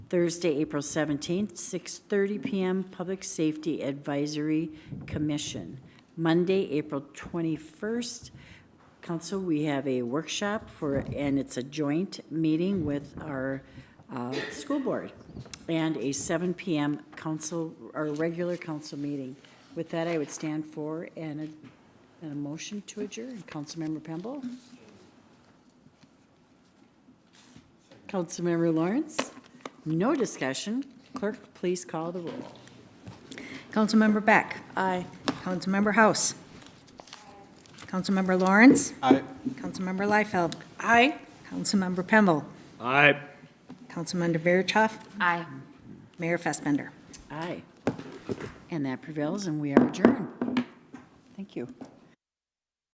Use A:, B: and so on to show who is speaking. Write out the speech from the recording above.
A: Thursday, April 17th, 6:30 PM, Public Safety Advisory Commission. Monday, April 21st, Council, we have a workshop for, and it's a joint meeting with our uh, school board, and a 7 PM council, our regular council meeting. With that, I would stand for and a, and a motion to adjourn. Councilmember Pemble? Councilmember Lawrence? No discussion. Clerk, please call the roll.
B: Councilmember Beck.
A: Aye.
B: Councilmember House. Councilmember Lawrence.
C: Aye.
B: Councilmember Liefeld. Aye. Councilmember Pemble.
C: Aye.
B: Councilmember Verichov.
D: Aye.
B: Mayor Fassbender.
A: Aye. And that prevails, and we are adjourned. Thank you.